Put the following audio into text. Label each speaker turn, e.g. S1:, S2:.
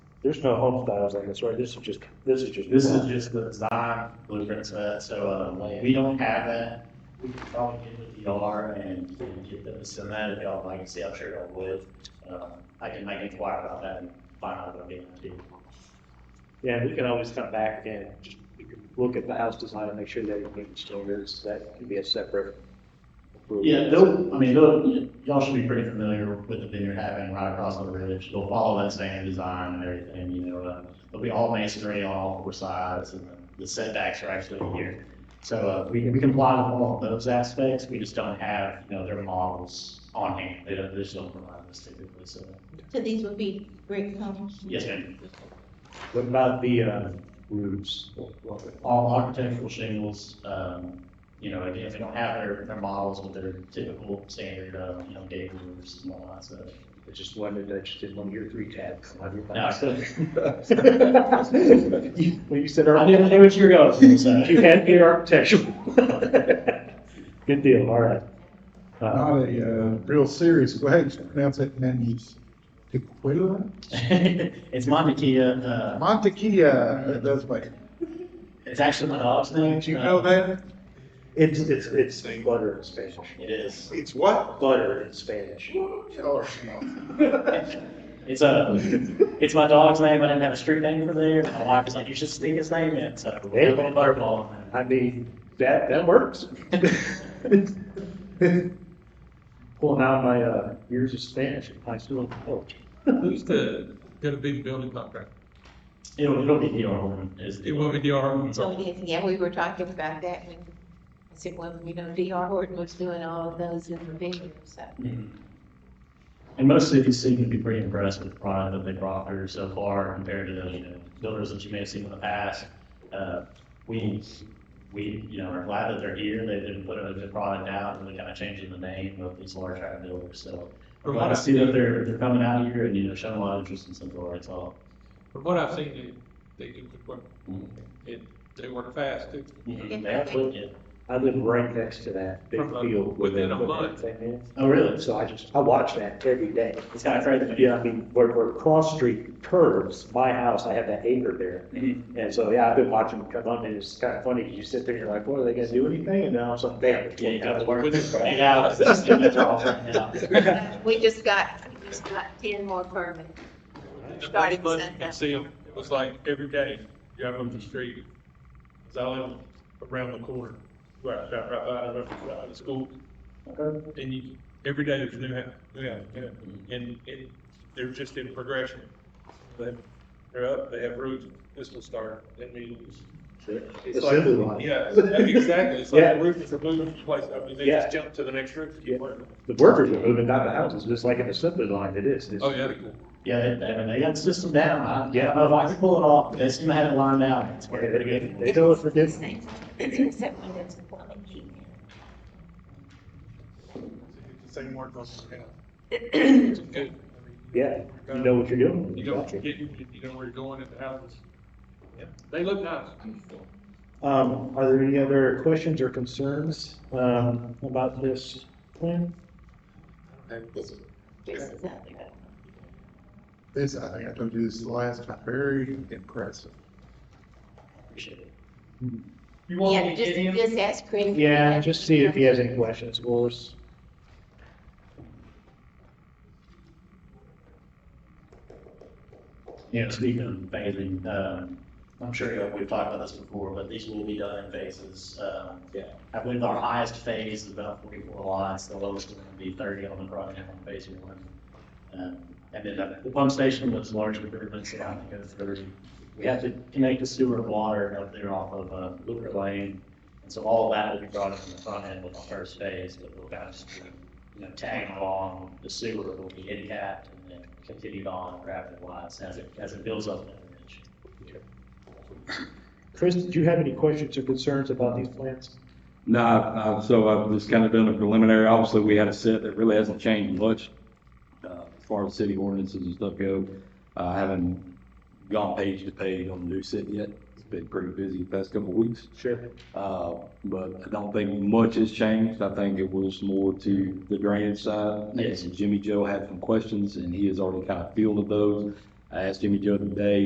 S1: There's no home styles on this, right? This is just, this is just.
S2: This is just the design blueprint set, so, uh, we don't have that. We can probably get with DR and and get them to send that if y'all like, see, I'm sure y'all would. Uh, I can make inquire about that and find out what they do.
S1: Yeah, we can always come back and just we can look at the house design and make sure that it meets standards. That can be a separate. approval.
S2: Yeah, they'll, I mean, they'll, y'all should be pretty familiar with the vineyard having right across the ridge. They'll follow that same design and everything, you know, uh, it'll be all masonry on all four sides and the setbacks are actually here. So, uh, we, we comply with all of those aspects, we just don't have, you know, their models on hand. They don't, they just don't provide us typically, so,
S3: So these would be brick homes?
S2: yes, ma'am.
S1: What about the, uh, roofs?
S2: All architectural shingles, um, you know, again, if they don't have their, their models with their typical standard, uh, you know, gable roofs and all that stuff.
S1: I just wondered, I just did one of your three tabs.
S2: No, so-
S1: You- When you said
S2: I
S1: architecture,
S2: didn't know what you were going. So.
S1: you had me at architectural. Good deal, all right. Uh,
S4: Not a uh, real serious question, pronounce it Maniz. Tequila?
S2: it's Montekia. Uh,
S4: Montequilla, that's my,
S2: it's actually my dog's name.
S4: did you
S2: Uh,
S4: know that?
S1: It's, it's, it's butter in Spanish.
S2: It is.
S4: It's what?
S1: Butter in Spanish.
S4: Oh, no.
S2: It's a. It's my dog's name. I didn't have a street name for there. My wife was like, "You should stick his name uh, in." So
S1: Hey.
S2: we're going butterball.
S1: I mean, that, that works. Pulling out my, uh, years of Spanish in high school and college.
S5: Who's the, gonna be the building contractor?
S2: It'll, it'll be DR1. Is
S5: It will be the arm,
S3: So,
S5: so,
S3: yes, yeah, we were talking about that when, I said, well, you know, DR Horton was doing all of those in the vineyard, so.
S2: Mm-hmm. And most cities seem to be pretty impressed with the product that they brought here so far compared to the you know, builders that you may have seen in the past. Uh, we, we, you know, are glad that they're here. They've been putting a good product out and really kind of changing the name of these large iron builders. So we're
S5: from
S2: glad
S5: what
S2: to see that
S5: I've,
S2: they're, they're coming out here and, you know, showing a lot of interest in Central Arkansas.
S5: from what I've seen, they, they do good work,
S2: Mhm.
S5: and they work fast too.
S2: They have to look at-
S1: I live right next to that big
S2: Uh-huh.
S5: From a-
S1: field.
S5: within a month.
S2: Oh, really?
S1: So I just, I watch that every day.
S2: It's kind of crazy.
S1: Yeah, I mean, where, where Cross Street curves, my house, I have that acre there. And so, yeah, I've been watching them come up and it's kind of funny, 'cause you sit there and you're like, boy, are they gonna do anything? And now it's like, damn.
S2: Yeah, you got to work.
S5: Within
S2: Eight
S5: eight
S2: hours.
S5: hours.
S2: Yeah.
S3: We just got, we just got ten more permits.
S5: The
S3: Starting
S5: first month, you
S3: Sunday.
S5: can see 'em. it was like every day, driving up the street, 'Cause I live around the corner, right, right, right, right, right, right, the school. And you, every day there's new, house, new, house, new, house. and, and they're just in progression. They- They're up, they have roots, this will start, that means. It's like-
S1: Assembly line.
S5: Yeah, exactly. It's
S1: Yeah.
S5: like the roof is removed from place, I mean, they
S1: Yeah.
S5: just jump to the next roof.
S1: Yeah. The workers are moving out the houses, just like an assembly line it is. It's-
S5: Oh, yeah.
S2: Yeah, they, I mean, they got the system down. I, yeah,
S1: Yeah.
S2: I don't know if I can pull it off. but They seem to have it lined out. It's
S1: Yeah,
S2: working
S1: They
S2: pretty
S1: they-
S2: good.
S1: they know it's ridiculous.
S3: Except when there's a plumbing key
S5: Same word goes, yeah.
S3: man.
S5: It's good.
S1: Yeah, you know what you're doing.
S5: You don't forget, you you know where you're going at the houses. They look nice.
S1: Um, are there any other questions or concerns, um, about this plan?
S3: This is- this is out there.
S4: This, I think I told you this last time, very impressive.
S2: Appreciate it.
S5: You want
S3: Yeah,
S5: me to
S3: just,
S5: get in?
S3: just ask Chris.
S1: Yeah, just see if he has any questions, Willis.
S2: You know, speaking of phasing, um, I'm sure you know, we've talked about this before, but these will be done in phases. Um,
S1: Yeah.
S2: I believe our highest phase is about 44 lots. The lowest is going to be 30 on the project on phase one. Um, and then the- the pump station was largely driven, so I think it's 30. We have to connect the sewer and water up there off of uh, Lucre Lane. And so all of that will be brought up in the front end with the first phase, but we'll kind of just, you know, tag along the sewer will be handicapped and then continued on rapid wise as it, as it builds up. that ridge.
S1: Chris, did you have any questions or concerns about these plans?
S6: No, I- I- so I've just kind of done a preliminary, obviously, we had a set that really hasn't changed much, uh, as far as city ordinances and stuff go. I haven't gone page to page on the new set yet, it's been pretty busy the past couple of weeks.
S1: Sure.
S6: Uh, but I don't think much has changed. I think it was more to the drainage side.
S2: Yes.
S6: And Jimmy Joe had some questions and he has already kind of fielded those. I asked Jimmy Joe today,